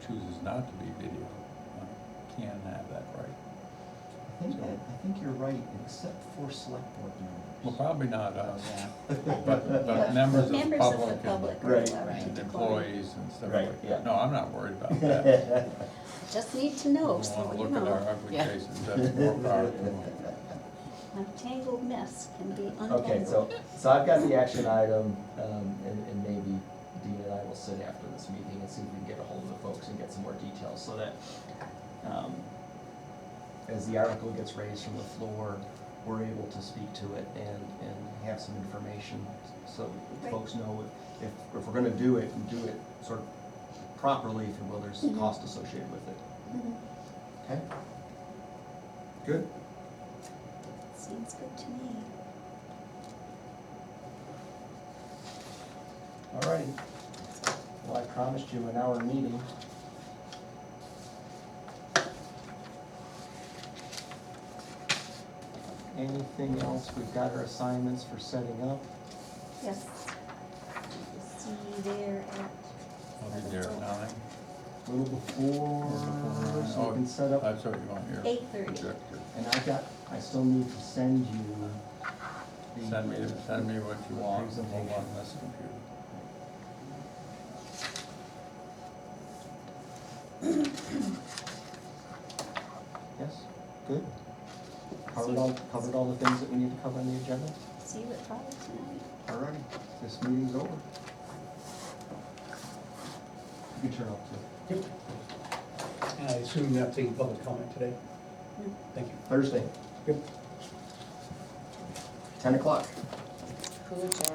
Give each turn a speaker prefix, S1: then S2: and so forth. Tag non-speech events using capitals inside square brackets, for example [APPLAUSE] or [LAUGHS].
S1: not to be video. I can have that right.
S2: I think that, I think you're right, except for select board
S1: Well,
S2: members. Uh,
S1: probably not us,
S2: Yeah.
S1: but, but members of the public and-
S2: Right.
S3: are allowed
S1: and
S3: to
S1: employees and stuff
S2: Right,
S1: like
S2: yeah.
S1: that. No, I'm not worried
S2: [LAUGHS]
S1: about that.
S3: call. Just need to
S1: I
S3: know,
S1: don't
S3: so
S1: wanna
S3: you
S1: look at our
S3: know,
S1: ugly
S4: Yeah.
S1: faces, that's more powerful.
S3: a tangled mess can be untangled.
S2: Okay, so, so I've got the action item, um, and, and maybe Dean and I will sit after this meeting and see if we can get a hold of the folks and get some more details, so that, um, as the article gets raised from the floor, we're able to speak to it and, and have some information, so
S3: Right.
S2: folks know if, if, if we're gonna do it, and do it sort of properly, if you will, there's
S3: Mhm.
S2: cost associated with it,
S3: Mhm.
S2: okay? Good.
S3: Seems good to me.
S2: All right. Well, I promised you an hour meeting. Anything else? We've got our assignments for setting up.
S3: Yes. We'll See you there at.
S1: I'll be there at nine.
S2: A little before, so we can set up.
S1: That's what you want your.
S3: 8:30.
S1: projector.
S2: And I got, I still need to send you uh, the.
S1: Send me, send me what you want,
S2: Presentation.
S1: hold on this computer.
S2: Yes, good. Covered all, covered all the things that we need to cover on the agenda?
S3: See you at five tonight.
S2: All righty, this meeting's over. You can turn off too.
S5: And I assume you're not taking public comment today?
S3: No.
S5: Thank you.
S2: Thursday,
S5: Yep.
S2: ten o'clock.
S4: Cool, Jack.